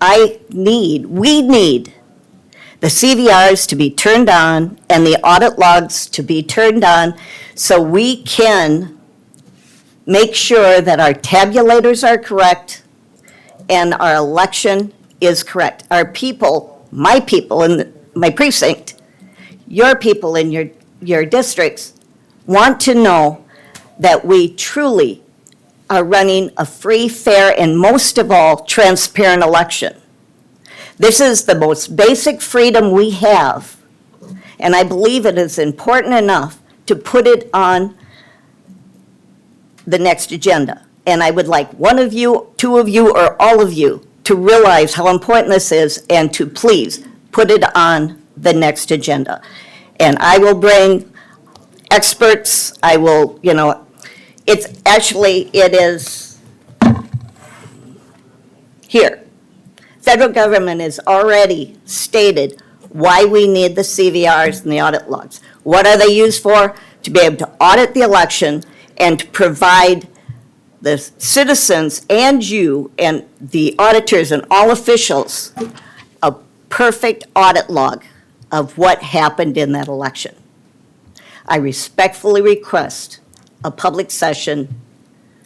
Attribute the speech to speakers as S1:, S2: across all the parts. S1: I need, we need the CVRs to be turned on and the audit logs to be turned on so we can make sure that our tabulators are correct and our election is correct. Our people, my people in the- my precinct, your people in your, your districts want to know that we truly are running a free, fair, and most of all, transparent election. This is the most basic freedom we have, and I believe it is important enough to put it on the next agenda. And I would like one of you, two of you, or all of you to realize how important this is and to please put it on the next agenda. And I will bring experts, I will, you know, it's, actually, it is here. Federal government has already stated why we need the CVRs and the audit logs. What are they used for? To be able to audit the election and to provide the citizens and you and the auditors and all officials a perfect audit log of what happened in that election. I respectfully request a public session,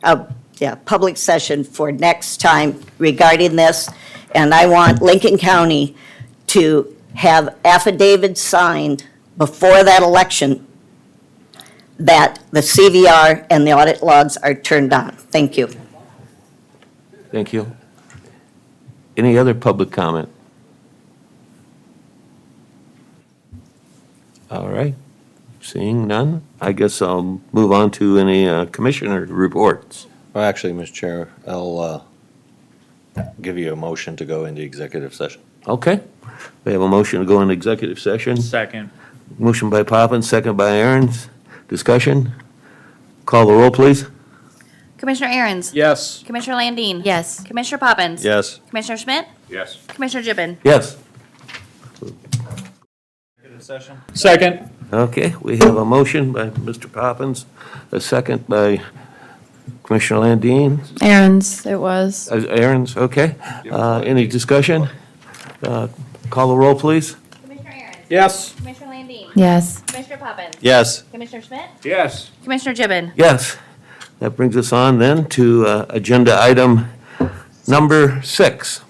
S1: a, yeah, public session for next time regarding this. And I want Lincoln County to have affidavits signed before that election that the CVR and the audit logs are turned on. Thank you.
S2: Thank you. Any other public comment? All right, seeing none, I guess I'll move on to any uh, commissioner reports.
S3: Well, actually, Mr. Chair, I'll uh, give you a motion to go into executive session.
S2: Okay, we have a motion to go into executive session.
S4: Second.
S2: Motion by Poppins, second by Aaron's. Discussion? Call the roll, please.
S5: Commissioner Aaron's?
S4: Yes.
S5: Commissioner Landine?
S6: Yes.
S5: Commissioner Poppins?
S3: Yes.
S5: Commissioner Schmidt?
S4: Yes.
S5: Commissioner Gibbon?
S2: Yes.
S4: Second.
S2: Okay, we have a motion by Mr. Poppins, a second by Commissioner Landine.
S6: Aaron's, it was.
S2: Uh, Aaron's, okay. Uh, Any discussion? Uh, Call the roll, please.
S5: Commissioner Aaron's?
S4: Yes.
S5: Commissioner Landine?
S6: Yes.
S5: Commissioner Poppins?
S3: Yes.
S5: Commissioner Schmidt?
S4: Yes.
S5: Commissioner Gibbon?
S2: Yes. That brings us on then to uh, agenda item number six.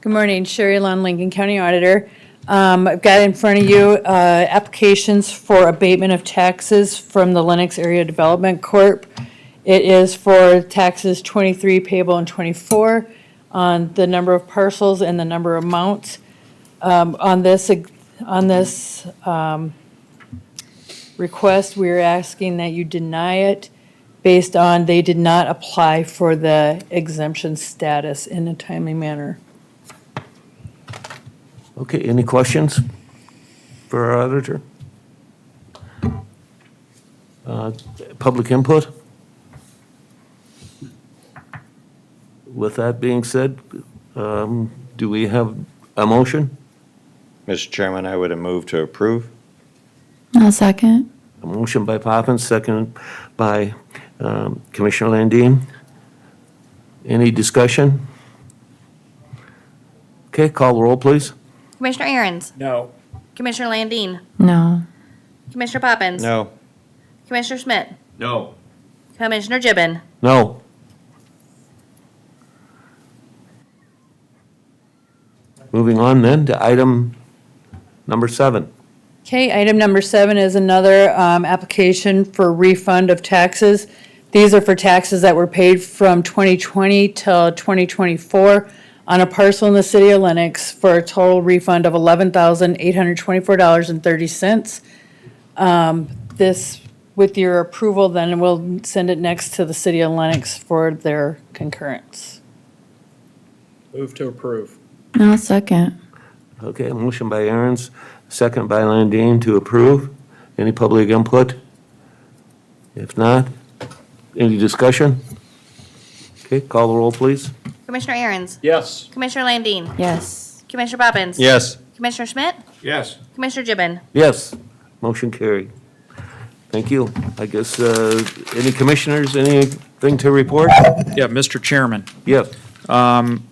S7: Good morning, Sherry Lund, Lincoln County Auditor. Um, I've got in front of you uh, applications for abatement of taxes from the Lennox Area Development Corp. It is for taxes 23 payable and 24 on the number of parcels and the number of amounts. Um, On this, on this um, request, we are asking that you deny it based on they did not apply for the exemption status in a timely manner.
S2: Okay, any questions for our auditor? Uh, Public input? With that being said, um, do we have a motion?
S3: Mr. Chairman, I would have moved to approve.
S6: I'll second.
S2: A motion by Poppins, second by um, Commissioner Landine. Any discussion? Okay, call the roll, please.
S5: Commissioner Aaron's?
S4: No.
S5: Commissioner Landine?
S6: No.
S5: Commissioner Poppins?
S3: No.
S5: Commissioner Schmidt?
S4: No.
S5: Commissioner Gibbon?
S2: No. Moving on then to item number seven.
S7: Okay, item number seven is another um, application for refund of taxes. These are for taxes that were paid from 2020 till 2024 on a parcel in the city of Lenox for a total refund of $11,824.30. Um, This, with your approval, then we'll send it next to the city of Lenox for their concurrence.
S4: Move to approve.
S6: I'll second.
S2: Okay, a motion by Aaron's, second by Landine to approve. Any public input? If not, any discussion? Okay, call the roll, please.
S5: Commissioner Aaron's?
S4: Yes.
S5: Commissioner Landine?
S6: Yes.
S5: Commissioner Poppins?
S3: Yes.
S5: Commissioner Schmidt?
S4: Yes.
S5: Commissioner Gibbon?
S2: Yes, motion carried. Thank you. I guess, uh, any commissioners, anything to report?
S8: Yeah, Mr. Chairman,
S2: Yes.
S8: um,